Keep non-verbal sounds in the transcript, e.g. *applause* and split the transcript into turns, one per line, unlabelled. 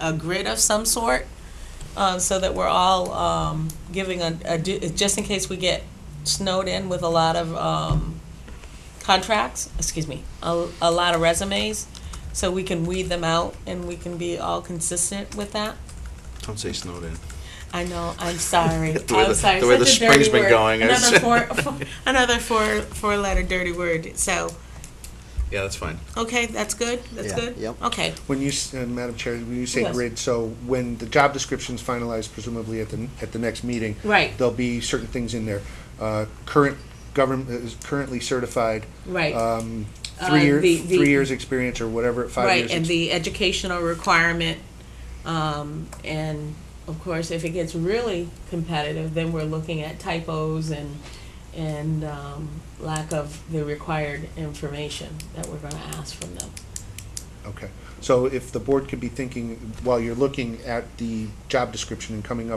a grid of some sort, uh, so that we're all, um, giving a, a du- just in case we get snowed in with a lot of, um, contracts, excuse me, a, a lot of resumes, so we can weed them out and we can be all consistent with that.
Don't say Snowden.
I know, I'm sorry,
*laughs* The way
I'm
the-
sorry.
the way the
Such a dirty
spring's been
word.
going is-
Another
*laughs*
four, four- another four, four letter dirty word, so,
Yeah, that's fine.
okay, that's good, that's
Yeah,
good?
yep.
Okay,
When you, s- uh, Madam Chair, when you say
Yes.
grid, so when the job description's finalized presumably at the, at the next meeting,
right,
there'll be certain things in there. Uh, Current government, uh, is currently certified,
right,
um,
Uh,
three years,
the- the-
three years experience or whatever, five
right,
years.
and
ex-
the educational requirement, um, and of course, if it gets really competitive, then we're looking at typos and, and, um, lack of the required information that we're gonna ask from them.
Okay, so if the board could be thinking, while you're looking at the job description and coming up